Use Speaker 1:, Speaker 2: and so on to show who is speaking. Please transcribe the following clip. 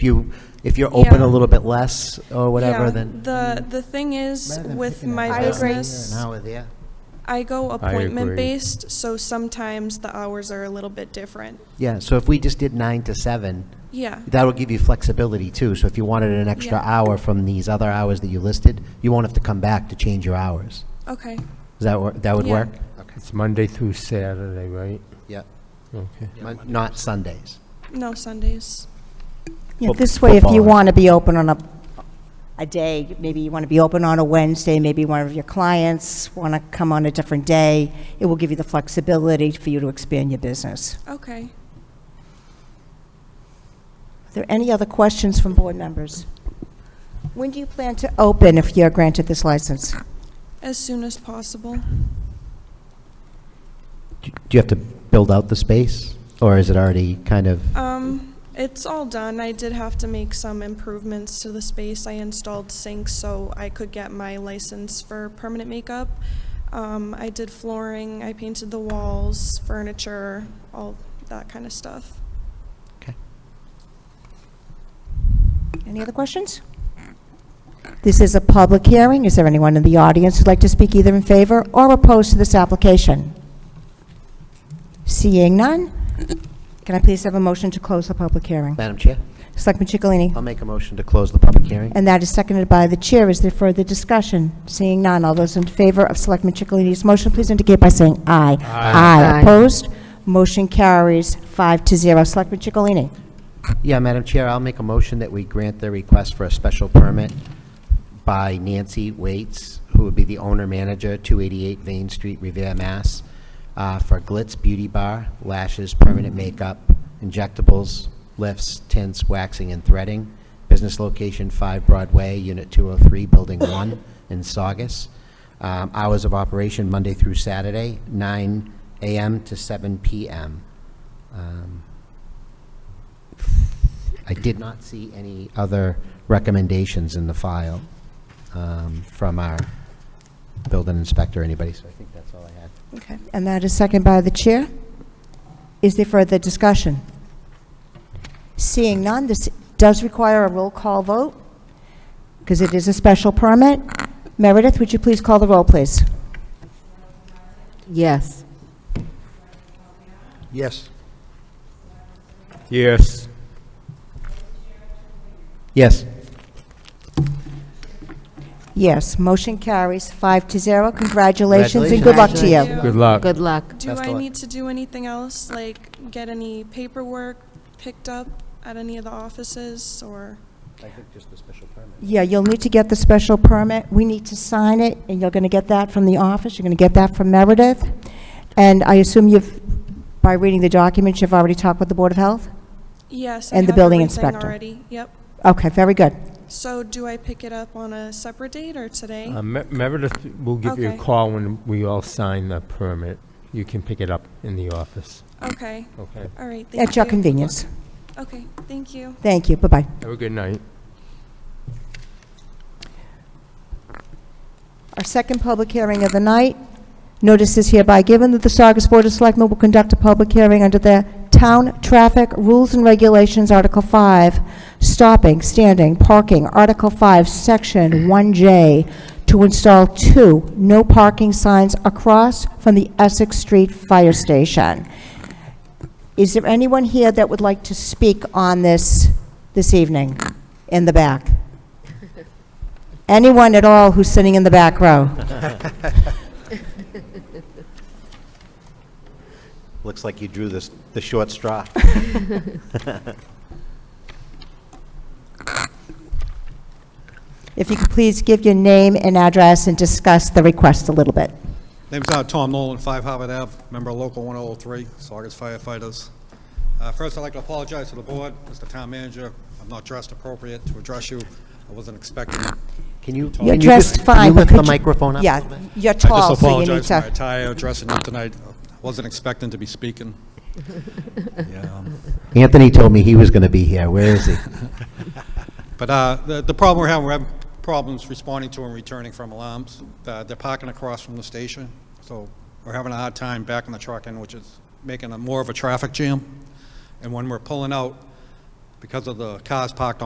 Speaker 1: If you, if you're open
Speaker 2: Yeah.
Speaker 1: a little bit less or
Speaker 2: Yeah,
Speaker 1: whatever, then.
Speaker 2: The, the thing is,
Speaker 1: Rather than
Speaker 2: with
Speaker 1: picking a
Speaker 2: my
Speaker 1: half hour here and
Speaker 2: business,
Speaker 1: An hour there.
Speaker 2: I go
Speaker 3: agree.
Speaker 2: appointment-based, so sometimes the hours are a little bit different.
Speaker 1: Yeah, so if we just did nine to seven,
Speaker 2: Yeah,
Speaker 1: that would give you flexibility too. So if you wanted an extra
Speaker 2: Yeah.
Speaker 1: hour from these other hours that you listed, you won't have to come back to change your hours.
Speaker 2: okay,
Speaker 1: Does that work, that would
Speaker 2: Yeah.
Speaker 1: work?
Speaker 3: It's Monday through Saturday, right?
Speaker 1: Yeah.
Speaker 3: Okay.
Speaker 1: Mon- Not Sundays.
Speaker 2: no Sundays.
Speaker 4: Yeah,
Speaker 1: Fo-
Speaker 4: this way, if
Speaker 1: football
Speaker 4: you
Speaker 1: is-
Speaker 4: want to be open on a, a day, maybe you want to be open on a Wednesday, maybe one of your clients want to come on a different day, it will give you the flexibility for you to expand your business.
Speaker 2: Okay.
Speaker 4: Are there any other questions from board members? When do you plan to open if you're granted this license?
Speaker 2: As soon as possible.
Speaker 1: Do do you have to build out the space, or is it already kind of?
Speaker 2: Um, it's all done. I did have to make some improvements to the space. I installed sinks so I could get my license for permanent makeup. Um, I did flooring, I painted the walls, furniture, all that kind of stuff.
Speaker 4: Any other questions? This is a public hearing. Is there anyone in the audience who'd like to speak either in favor or opposed to this application? Seeing none, can I please have a motion to close the public hearing?
Speaker 1: Madam Chair,
Speaker 4: Selectman Chicalini?
Speaker 1: I'll make a motion to close the public hearing.
Speaker 4: And that is seconded by the chair. Is there further discussion? Seeing none, all those in favor of Selectman Chicalini's motion, please indicate by saying aye. Aye. Opposed? Motion carries five to zero. Selectman Chicalini?
Speaker 1: Yeah, Madam Chair, I'll make a motion that we grant the request for a special permit by Nancy Waits, who would be the owner-manager, 288 Vane Street, Revere, Mass, uh, for Glitz Beauty Bar, lashes, permanent makeup, injectables, lifts, tints, waxing, and threading. Business location 5 Broadway, Unit 203, Building 1, in Saugus. Um, Hours of operation Monday through Saturday, 9 AM to 7 PM. Um, I did not see any other recommendations in the file um, from our building inspector, or anybody, so I think that's all I had.
Speaker 4: Okay. And that is seconded by the chair. Is there further discussion? Seeing none, this does require a roll call vote, because it is a special permit. Meredith, would you please call the roll, please?
Speaker 5: Yes.
Speaker 3: Yes. Yes.
Speaker 1: Yes.
Speaker 4: Yes, motion carries five to zero. Congratulations and good luck to you.
Speaker 3: Good luck.
Speaker 5: Good luck.
Speaker 2: Do
Speaker 1: Best of
Speaker 2: I
Speaker 1: luck.
Speaker 2: need to do anything else, like get any paperwork picked up at any of the offices or?
Speaker 1: I think just the special permit.
Speaker 4: Yeah, you'll need to get the special permit. We need to sign it, and you're going to get that from the office. You're going to get that from Meredith. And I assume you've, by reading the documents, you've already talked with the Board of Health?
Speaker 2: Yes, I
Speaker 4: And the
Speaker 2: have
Speaker 4: building
Speaker 2: everything
Speaker 4: inspector.
Speaker 2: already. Yep.
Speaker 4: Okay, very good.
Speaker 2: So do I pick it up on a separate date or today?
Speaker 3: Uh, Me- Meredith will give you a
Speaker 2: Okay.
Speaker 3: call when we all sign the permit. You can pick it up in the office.
Speaker 2: Okay,
Speaker 3: Okay.
Speaker 2: all right, thank you.
Speaker 4: At your convenience.
Speaker 2: Okay, thank you.
Speaker 4: Thank you, bye-bye.
Speaker 3: Have a good night.
Speaker 4: Our second public hearing of the night. Notice is hereby given that the Saugus Board of Selectmen will conduct a public hearing under the Town Traffic Rules and Regulations, Article 5, Stopping, Standing, Parking, Article 5, Section 1J, to install two no parking signs across from the Essex Street Fire Station. Is there anyone here that would like to speak on this, this evening, in the back? Anyone at all who's sitting in the back row?
Speaker 1: Looks like you drew this, the short straw.
Speaker 4: If you could please give your name and address and discuss the request a little bit.
Speaker 6: Name's uh, Tom Nolan, 5 Harvard Ave, member of Local 103, Saugus firefighters. Uh, First, I'd like to apologize to the board, Mr. Town Manager. I'm not dressed appropriate to address you. I wasn't expecting. it.
Speaker 1: Can you?
Speaker 4: You're
Speaker 1: Oh, can you just-
Speaker 4: dressed
Speaker 1: Can you
Speaker 4: fine, but could
Speaker 1: lift the
Speaker 4: you-
Speaker 1: microphone up? a
Speaker 4: Yeah,
Speaker 1: little bit?
Speaker 4: you're
Speaker 6: I just
Speaker 4: tall, so you need
Speaker 6: apologize for my
Speaker 4: to...
Speaker 6: attire, addressing you tonight. I Wasn't expecting to be speaking. Yeah, um,
Speaker 1: Anthony told me he was going to be here. Where is he?
Speaker 6: But uh, the the problem we're having, we're having problems responding to and returning from alarms. Uh, They're parking across from the station, so we're having a hard time backing the truck in, which is making a more of a traffic jam. And when we're pulling out, because of the cars parked